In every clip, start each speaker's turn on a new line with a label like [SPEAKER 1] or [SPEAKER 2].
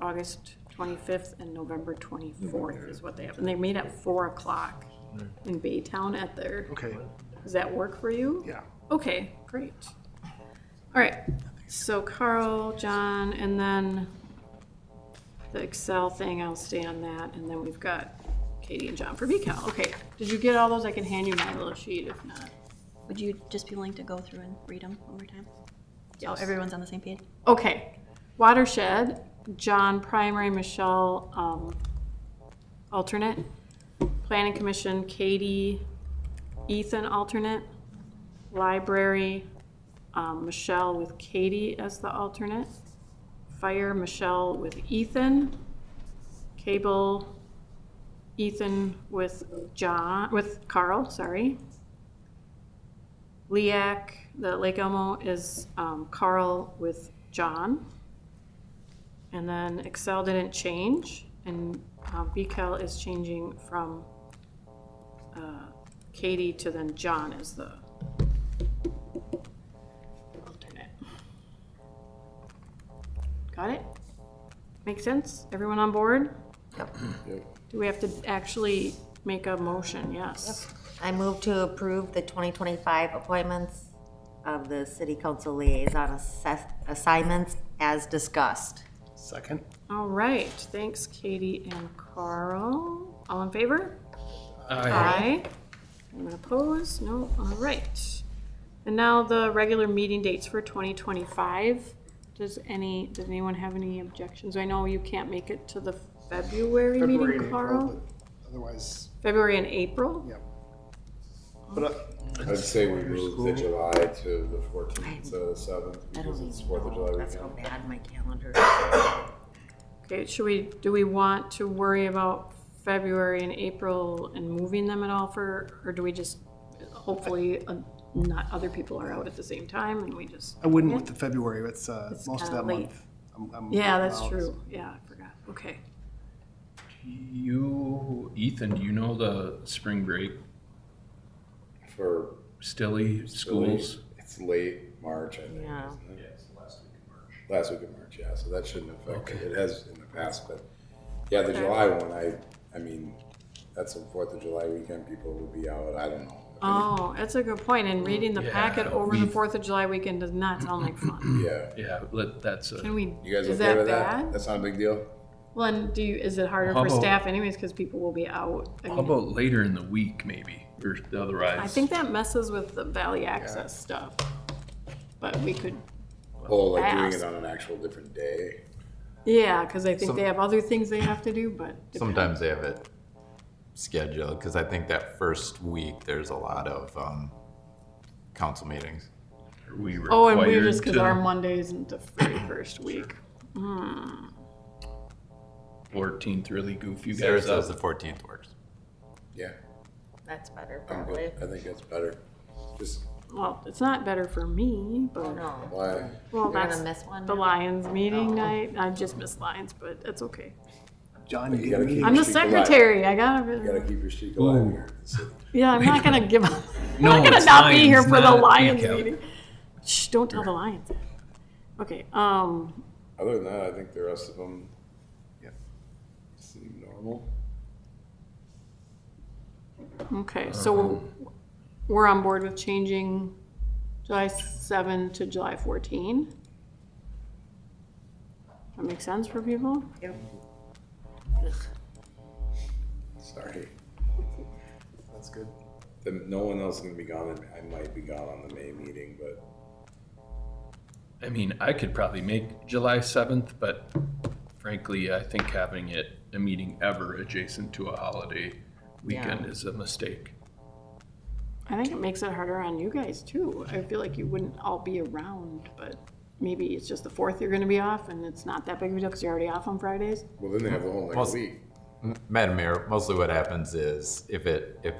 [SPEAKER 1] August 25th and November 24th is what they have. And they meet at 4 o'clock in Baytown at their,
[SPEAKER 2] Okay,
[SPEAKER 1] does that work for you?
[SPEAKER 2] yeah.
[SPEAKER 1] Okay, great. All right, so Carl, John, and then the Excel thing, I'll stay on that, and then we've got Katie and John for VCal. Okay, did you get all those? I can hand you my little sheet if not.
[SPEAKER 3] Would you just be willing to go through and read them one more time? So
[SPEAKER 1] Yes.
[SPEAKER 3] everyone's on the same page?
[SPEAKER 1] Okay, watershed, John primary, Michelle, um, alternate. Planning commission, Katie, Ethan alternate. Library, um, Michelle with Katie as the alternate. Fire, Michelle with Ethan. Cable, Ethan with John, with Carl, sorry. LEAC, the Lake Elmo is um, Carl with John. And then Excel didn't change, and uh, VCal is changing from uh, Katie to then John as the alternate. Got it? Make sense? Everyone on board? Do we have to actually make a motion? Yes.
[SPEAKER 4] I move to approve the 2025 appointments of the city council liaison assess- assignments as discussed.
[SPEAKER 2] Second?
[SPEAKER 1] All right, thanks Katie and Carl. All in favor? Aye. Anyone opposed? No, all right. And now the regular meeting dates for 2025. Does any, does anyone have any objections? I know you can't make it to the February
[SPEAKER 2] February and
[SPEAKER 1] meeting,
[SPEAKER 2] April,
[SPEAKER 1] Carl.
[SPEAKER 2] but Otherwise,
[SPEAKER 1] February and April?
[SPEAKER 2] yeah. But uh,
[SPEAKER 5] I'd say we move the July to the fourteenth to the seventh
[SPEAKER 4] I
[SPEAKER 5] because
[SPEAKER 4] don't
[SPEAKER 5] it's
[SPEAKER 4] even
[SPEAKER 5] Fourth of
[SPEAKER 4] know,
[SPEAKER 5] July
[SPEAKER 4] that's how
[SPEAKER 5] weekend.
[SPEAKER 4] bad my calendar.
[SPEAKER 1] Okay, should we, do we want to worry about February and April and moving them at all for, or do we just, hopefully, uh, not other people are out at the same time and we just
[SPEAKER 2] I wouldn't with the February, it's, uh,
[SPEAKER 1] It's
[SPEAKER 2] most of
[SPEAKER 1] kinda
[SPEAKER 2] that
[SPEAKER 1] late.
[SPEAKER 2] month. I'm- I'm
[SPEAKER 1] Yeah, that's
[SPEAKER 2] out.
[SPEAKER 1] true. Yeah, I forgot. Okay.
[SPEAKER 6] You, Ethan, do you know the spring break
[SPEAKER 5] For
[SPEAKER 6] Stilly schools?
[SPEAKER 5] It's late March, I think.
[SPEAKER 4] Yeah.
[SPEAKER 5] isn't it? Last week of March, yeah, so that shouldn't affect it. It has in the past, but, yeah, the July one, I, I mean, that's the Fourth of July weekend, people will be out, I don't know.
[SPEAKER 1] Oh, that's a good point. And reading the packet
[SPEAKER 6] Yeah,
[SPEAKER 1] over the
[SPEAKER 6] we've-
[SPEAKER 1] Fourth of July weekend does not sound like
[SPEAKER 4] Um,
[SPEAKER 1] fun.
[SPEAKER 5] Yeah,
[SPEAKER 6] Yeah, let, that's
[SPEAKER 1] Can
[SPEAKER 6] a,
[SPEAKER 1] we,
[SPEAKER 5] you guys
[SPEAKER 1] is
[SPEAKER 5] okay
[SPEAKER 1] that
[SPEAKER 5] with that?
[SPEAKER 1] bad?
[SPEAKER 5] That's not a big deal?
[SPEAKER 1] Well, and do you, is it harder
[SPEAKER 6] How
[SPEAKER 1] for
[SPEAKER 6] about-
[SPEAKER 1] staff anyways, because people will be out? I
[SPEAKER 6] how
[SPEAKER 1] mean,
[SPEAKER 6] about later in the week maybe, or otherwise?
[SPEAKER 1] I think that messes with the valley access stuff. But we could,
[SPEAKER 5] Oh, like doing
[SPEAKER 1] Fast.
[SPEAKER 5] it on an actual different day?
[SPEAKER 1] yeah, because I think
[SPEAKER 7] Some-
[SPEAKER 1] they have other things they have to do, but.
[SPEAKER 7] Sometimes they have it scheduled, because I think that first week, there's a lot of um, council meetings.
[SPEAKER 6] Are we
[SPEAKER 1] Oh, and we
[SPEAKER 6] required
[SPEAKER 1] just, because
[SPEAKER 6] to-
[SPEAKER 1] our Monday isn't the very first week.
[SPEAKER 6] 14th really goof you
[SPEAKER 7] Sarah
[SPEAKER 6] guys
[SPEAKER 7] says the
[SPEAKER 6] up.
[SPEAKER 7] 14th works.
[SPEAKER 5] Yeah,
[SPEAKER 4] That's better,
[SPEAKER 5] I'm
[SPEAKER 4] probably.
[SPEAKER 5] good. I think that's better. Just,
[SPEAKER 1] Well, it's not better for me,
[SPEAKER 4] Oh,
[SPEAKER 1] but,
[SPEAKER 4] no.
[SPEAKER 5] why?
[SPEAKER 1] well,
[SPEAKER 4] You're
[SPEAKER 1] that's
[SPEAKER 4] gonna miss one?
[SPEAKER 1] the Lions meeting
[SPEAKER 4] Oh.
[SPEAKER 1] night. I just missed Lions, but that's okay.
[SPEAKER 2] John, you
[SPEAKER 5] You
[SPEAKER 2] get
[SPEAKER 5] gotta
[SPEAKER 2] me?
[SPEAKER 5] keep-
[SPEAKER 1] I'm the
[SPEAKER 5] Keep alive.
[SPEAKER 1] secretary. I
[SPEAKER 5] You gotta
[SPEAKER 1] gotta.
[SPEAKER 5] keep your streak alive here. in the city.
[SPEAKER 1] Yeah, I'm not gonna give up. I'm
[SPEAKER 6] No,
[SPEAKER 1] not gonna
[SPEAKER 6] it's
[SPEAKER 1] not be here
[SPEAKER 6] Lions,
[SPEAKER 1] for the
[SPEAKER 6] not
[SPEAKER 1] Lions
[SPEAKER 6] Peacock.
[SPEAKER 1] meeting. Shh! Don't tell the Lions. Okay. Um.
[SPEAKER 5] Other than that, I think the rest of them
[SPEAKER 2] Yeah.
[SPEAKER 5] seem normal.
[SPEAKER 1] Okay. So we're, we're on board with changing July seven to July fourteen. That makes sense for people.
[SPEAKER 5] Sorry.
[SPEAKER 2] That's good.
[SPEAKER 5] The, no one else is gonna be gone. and I might be gone on the May meeting, but
[SPEAKER 6] I mean, I could probably make July 7th, but frankly, I think having it, a meeting ever adjacent to a holiday weekend is a mistake.
[SPEAKER 1] I think it makes it harder on you guys too. I feel like you wouldn't all be around, but maybe it's just the fourth you're gonna be off, and it's not that big of a deal because you're already off on Fridays.
[SPEAKER 5] well, then they have the whole next
[SPEAKER 7] Plus-
[SPEAKER 5] week.
[SPEAKER 7] M- Madam Mayor, mostly what happens is if it, if,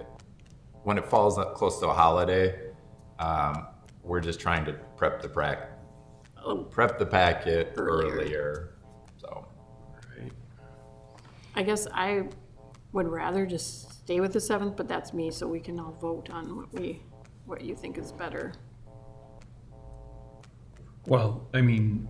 [SPEAKER 7] when it falls up close to a holiday, um, we're just trying to prep the prac, prep the packet earlier, so.
[SPEAKER 6] Right.
[SPEAKER 1] I guess I would rather just stay with the seventh, but that's me, so we can all vote on what we, what you think is better.
[SPEAKER 6] Well, I mean,